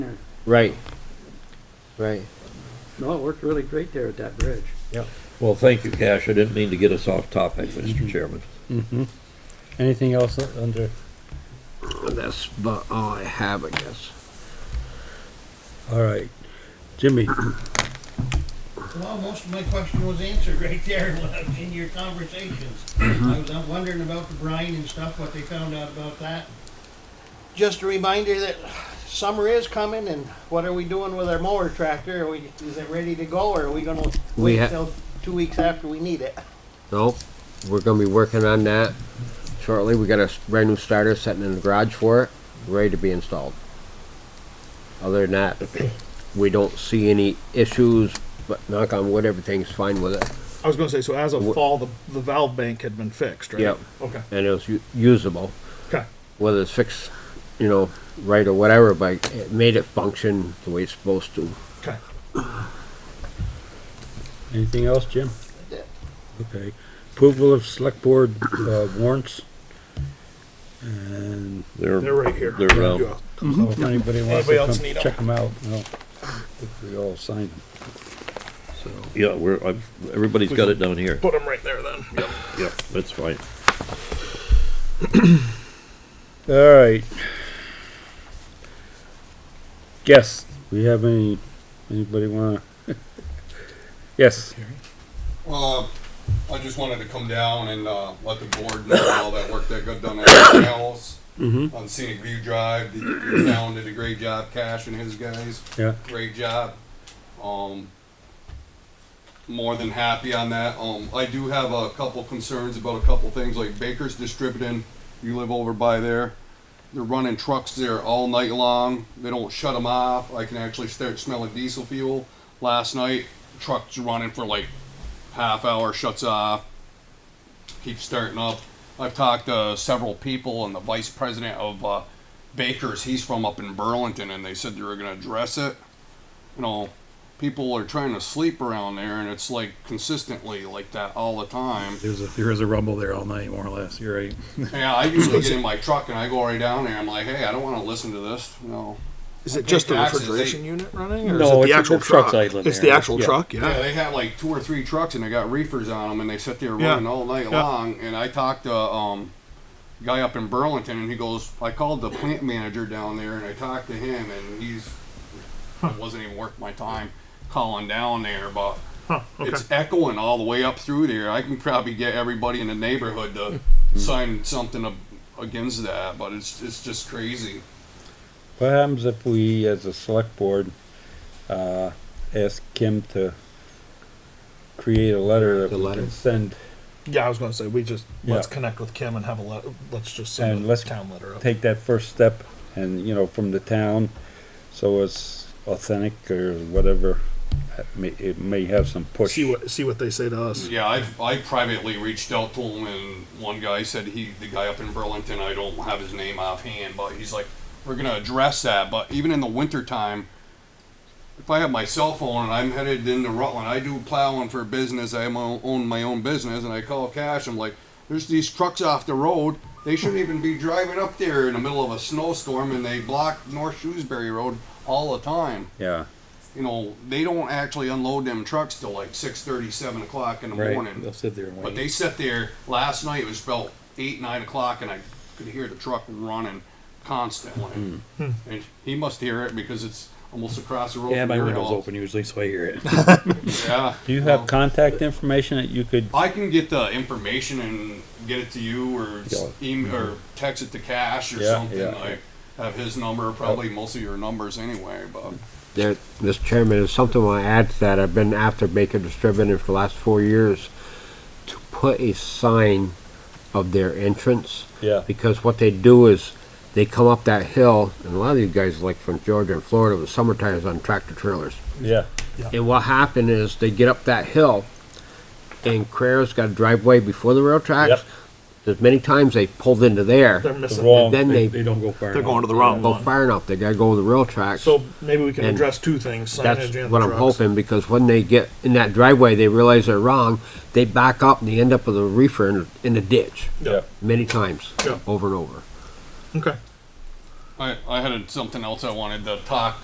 Right, right. No, it worked really great there at that bridge. Well, thank you, Cash. I didn't mean to get us off topic, Mr. Chairman. Mm-hmm. Anything else under, That's about oh, all I have, I guess. all right, Jimmy? Well, most of my question was answered right there in your conversations. Mm-hmm. I was uh, wondering about the brine and stuff, what they found out about that. Just a reminder that summer is coming and what are we doing with our mower tractor? Are we, is it ready to go or are we gonna We wait ha- till two weeks after we need it? So, we're gonna be working on that shortly. We got a s- brand new starter sitting in the garage for it, ready to be installed. Other than that, we don't see any issues, but knock on wood, everything's fine with it. I was gonna say, so as of Wh- fall, the, the valve bank had been fixed, right? Yep. Okay, And it was u- usable, okay. whether it's fixed, you know, right or whatever, but it made it function the way it's supposed to. Okay. Anything else, Jim? That's it. Okay, approval of select board uh, warrants? And They're right here. They're, uh, Yeah. so if anybody wants Mm-hmm. Anybody to else come need 'em? check them out, well, if we all sign them, so. yeah, we're, I've, everybody's got it down here. Put them right there then. Yep. Yeah, that's fine. All right. Yes, we have any, anybody wanna? Yes, Uh, I just wanted to come down and, uh, let the board know all that work that got done at the house. On Scenic View Drive, the the town did a great job, Cash and his guys, yeah, great job. Um, more than happy on that. Um, I do have a couple concerns about a couple things, like Baker's Distributing, you live over by there. They're running trucks there all night long. They don't shut them off. I can actually start smelling diesel fuel. Last night, trucks running for like half hour, shuts off, keeps starting up. I've talked to several people and the vice president of uh, Baker's. He's from up in Burlington, and they said they were going to address it. You know, people are trying to sleep around there, and it's like consistently like that all the time. There's a, there is a rumble there all night, more or less. You're right. Yeah, I usually get in my truck and I go right down there. I'm like, hey, I don't want to listen to this. No. Is it just the Taxes, refrigeration unit running, or No, is it the it's- actual the truck's truck? idling It's there. the actual Yeah. truck. Yeah, Yeah. they have like two or three trucks and they got reefers on them and they sit there Yeah. running all night Yeah. long. And I talked to um guy up in Burlington and he goes, I called the plant manager down there and I talked to him and he's it wasn't even worth my time calling down there, but it's echoing all the way up through there. I can probably get everybody in the neighborhood to Hmm. sign something ab- against that, but it's it's just crazy. what happens if we, as a select board, uh, ask Kim to create a letter that The we letter. can send, Yeah, I was gonna say we just let's Yeah. connect with Kim and have a let. Let's just send And a let's town letter up. take that first step and, you know, from the town, so it's authentic or whatever. It may, it may have some push. see what see what they say to us. Yeah, I I privately reached out to him, and one guy said he, the guy up in Burlington, I don't have his name offhand, but he's like, we're gonna address that. But even in the wintertime, if I have my cell phone and I'm headed into Rutland, I do plowing for business. I am o- own my own business, and I call Cash. I'm like, there's these trucks off the road. They shouldn't even be driving up there in the middle of a snowstorm, and they block North Shrewsbury Road all the time Yeah, you know, they don't actually unload them trucks till like six thirty, seven o'clock in the morning. They'll sit there and But wait. they sat there last night. It was about eight, nine o'clock, and I could hear the truck running constantly. Hmm. And he must hear it because it's almost across the road. yeah, from my your window's house. open usually, so I hear it. Yeah. do you have Well, contact information that you could I can get the information and get it to you, or s- em- or text it to Cash or Yeah, something. yeah. I have his number, probably most of your numbers anyway. But There, Mr. Chairman, there's something I want to add to that. I've been after Baker Distributing for the last four years to put a sign of their entrance. Yeah. Because what they do is they come up that hill, and a lot of you guys like from Georgia and Florida with summer tires on tractor trailers. Yeah, And what happened is they get up that hill, and Carrera's got a driveway before the rail tracks. Yep. There's many times they pulled into They're there, missing. wrong- then they, they they don't go far. They're enough. going to the wrong go one. far enough. They gotta go to the rail tracks. So maybe we can And address two things. Signage That's and the what I'm trucks. hoping, because when they get in that driveway, they realize they're wrong, they back up and they end up with a reefer in, in a ditch, yeah. many times, Yeah. over and over. Okay. I I had something else I wanted to talk